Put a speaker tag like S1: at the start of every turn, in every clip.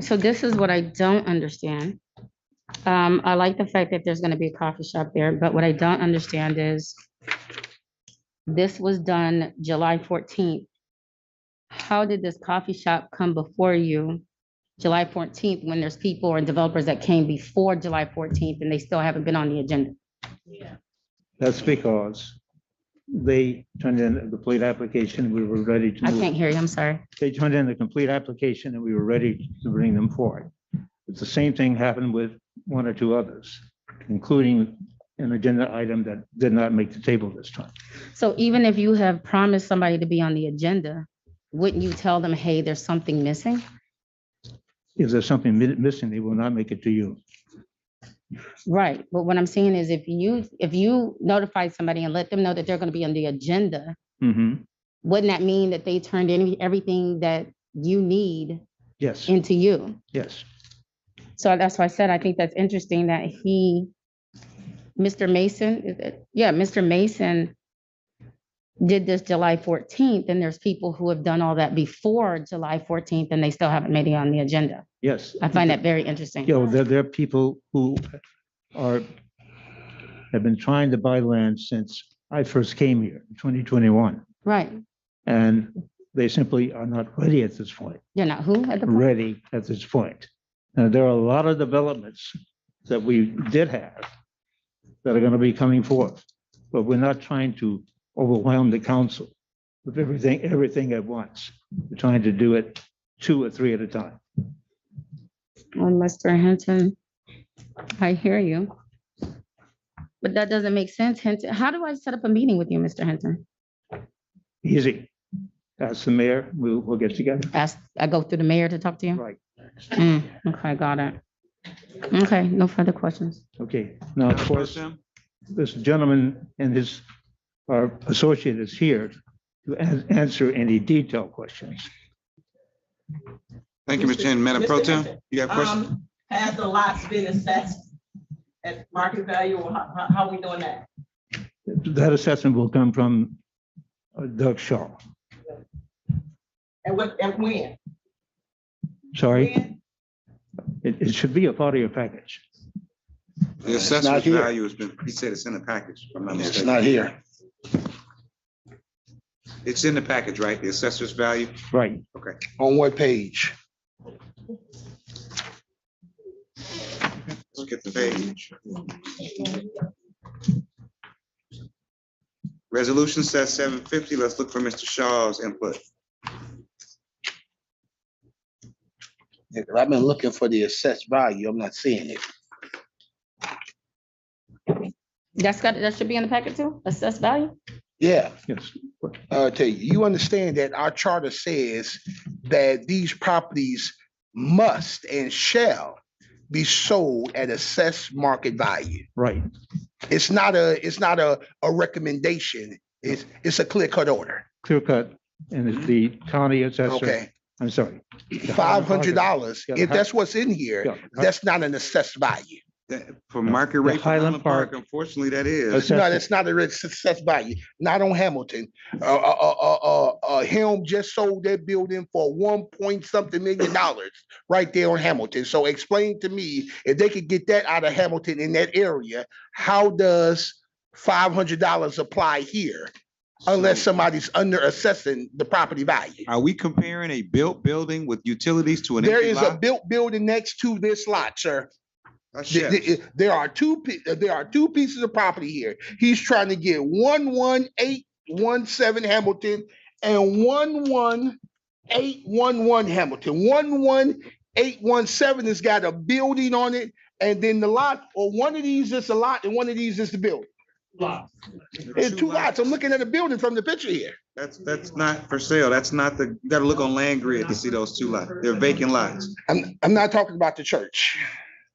S1: so this is what I don't understand. Um, I like the fact that there's gonna be a coffee shop there, but what I don't understand is this was done July fourteenth. How did this coffee shop come before you July fourteenth when there's people or developers that came before July fourteenth and they still haven't been on the agenda?
S2: That's because they turned in the complete application, we were ready to
S1: I
S2: move.
S1: can't hear you, I'm sorry.
S2: They turned in the complete application and we were ready to bring them forward. It's the same thing happened with one or two others, including an agenda item that did not make the table this time.
S1: So even if you have promised somebody to be on the agenda, wouldn't you tell them, hey, there's something missing?
S2: If there's something mi- missing, they will not make it to you.
S1: Right, but what I'm saying is if you, if you notify somebody and let them know that they're gonna be on the agenda,
S2: Mhm.
S1: wouldn't that mean that they turned in everything that you need
S2: Yes,
S1: into you?
S2: yes.
S1: So that's why I said, I think that's interesting that he, Mr. Mason, is it- yeah, Mr. Mason did this July fourteenth, and there's people who have done all that before July fourteenth, and they still haven't made it on the agenda.
S2: Yes.
S1: I find that very interesting.
S2: You know, there, there are people who are, have been trying to buy land since I first came here, in 2021.
S1: Right,
S2: And they simply are not ready at this point,
S1: you're not who at the, point?
S2: ready at this point. Now, there are a lot of developments that we did have that are going to be coming forth, but we're not trying to overwhelm the council with everything, everything at once. We're trying to do it two or three at a time.
S1: Oh, Mr. Hinton, I hear you. But that doesn't make sense, Hinton. How do I set up a meeting with you, Mr. Hinton?
S2: Easy. That's the mayor. We'll, we'll get together.
S1: Ask, I go through the mayor to talk to you?
S2: Right.
S1: Mm, Okay, got it. Okay, no further questions.
S2: Okay. Now, of course, this gentleman and his, our associate is here to an- answer any detailed questions.
S3: Thank you, Mr. Chairman. Madam Pro
S4: Mr.
S3: Tem,
S4: Hunter.
S3: you got questions?
S4: Um, Have the lots been assessed at market value or how, how- how we doing that?
S2: That assessment will come from uh, Doug Shaw.
S4: And what, and when?
S2: Sorry,
S4: When?
S2: it, it should be a part of your package.
S3: The
S5: It's not
S3: assessment
S5: here.
S3: value has been, he said it's in the package, if I'm not
S5: It's
S3: mistaken.
S5: not here.
S3: It's in the package, right? The assessor's value?
S2: Right.
S5: On what page?
S3: Let's get the page. Resolution says seven fifty. Let's look for Mr. Shaw's input.
S5: Yeah, 'cause I've been looking for the assessed value. I'm not seeing it.
S1: That's got, that should be in the packet too, assess value?
S5: Yeah,
S2: Yes,
S5: uh, tell you, you understand that our charter says that these properties must and shall be sold at assessed market value.
S2: right.
S5: It's not a, it's not a, a recommendation. It's, it's a clear cut order.
S2: Clear cut. And it's the county assessor,
S5: Okay,
S2: I'm sorry.
S5: five hundred dollars.
S2: Yeah, the
S5: If
S2: hi-
S5: that's what's in here,
S2: Yeah,
S5: that's not an assessed value.
S3: That- For market rate. for
S2: Highland Park-
S3: Unfortunately, that
S2: That's-
S3: is.
S5: No,
S2: Assessment.
S5: that's not a red success value, not on Hamilton. Uh, uh, uh, uh, uh, Helm just sold that building for one point something million dollars right there on Hamilton. So explain to me, if they could get that out of Hamilton in that area, how does five hundred dollars apply here? Unless somebody's under assessing the property value.
S3: Are we comparing a built building with utilities to an
S5: There
S3: empty
S5: is a
S3: lot?
S5: built building next to this lot, sir.
S3: A
S5: Th-
S3: shed.
S5: th- i- There are two, pi- uh, there are two pieces of property here. He's trying to get one, one, eight, one, seven Hamilton and one, one, eight, one, one Hamilton. One, one, eight, one, seven has got a building on it. And then the lot, or one of these is a lot and one of these is the building. It's two lots. I'm looking at a building from the picture here.
S3: That's, that's not for sale. That's not the, you gotta look on land grid to see those two lots. They're vacant lots.
S5: I'm, I'm not talking about the church.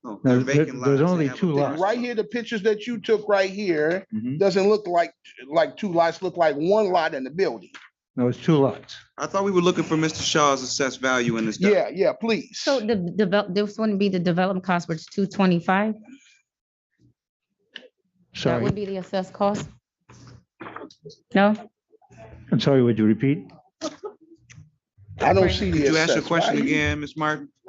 S3: No,
S2: No,
S3: they're
S2: there-
S3: vacant
S2: there's
S3: lots. They
S2: only
S3: have a
S2: two
S3: different-
S2: lots.
S5: Right here, the pictures that you took right here
S2: Mhm.
S5: doesn't look like, like two lots, look like one lot in the building.
S2: No, it's two lots.
S3: I thought we were looking for Mr. Shaw's assessed value in this. document.
S5: Yeah, yeah, please.
S1: So the develop, this wouldn't be the development cost, which is two twenty-five? That
S2: Sorry,
S1: would be the assessed cost? No?
S2: I'm sorry, would you repeat?
S5: I don't
S1: Right.
S5: see the.
S3: Could you ask your
S5: assessed
S3: question
S5: value.
S3: again, Ms. Martin?